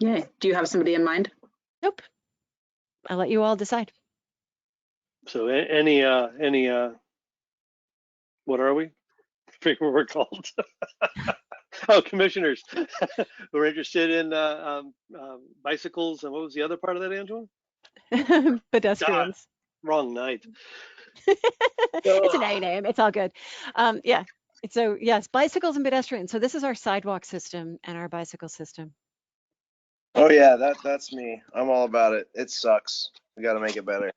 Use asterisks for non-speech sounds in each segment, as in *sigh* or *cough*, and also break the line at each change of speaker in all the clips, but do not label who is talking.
Yay. Do you have somebody in mind?
Nope. I'll let you all decide. *laughs*
So a- any, uh, any, uh, what are we? *laughs* Forget what we're called. *laughs* Oh, commissioners *laughs* who are interested in, uh, um, um, bicycles and what was the other part of that, Angela?
Pedestrians.
Wrong night.
it's an A name. It's all good. Um, yeah. So yes, bicycles and pedestrians. So this is our sidewalk system and our bicycle system.
Oh yeah, that that's me. I'm all about it. It sucks. We got to make it better.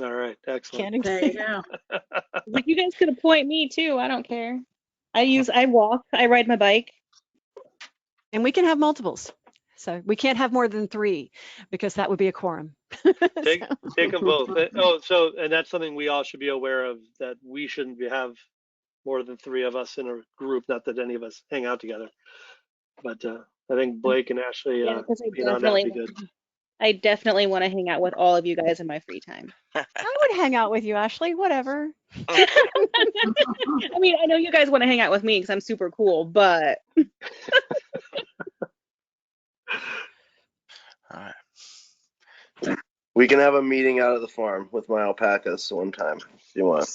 All right, excellent.
Can't
There you
exist.
go.
Like you guys could appoint me too. I don't care. I use, I walk, I ride my bike.
And we can have multiples. So we can't have more than three because that would be a quorum.
Take, take them both. Uh, Oh, so, and that's something we all should be aware of, that we shouldn't be, have more than three of us in a group, not that any of us hang out together. But, uh, I think Blake and Ashley,
Yeah,
uh,
because I
being on that would be
definitely,
good.
I definitely want to hang out with all of you guys in my free
*laughs*
time. *laughs*
I would hang out with you, Ashley. Whatever.
I mean, I know you guys want to hang out with me because I'm super cool, but
All right.
We can have a meeting out at the farm with my alpacas one time if you want.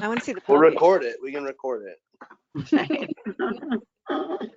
I want to see the.
We'll
ponies.
record it. We can record it.
*laughs* Right.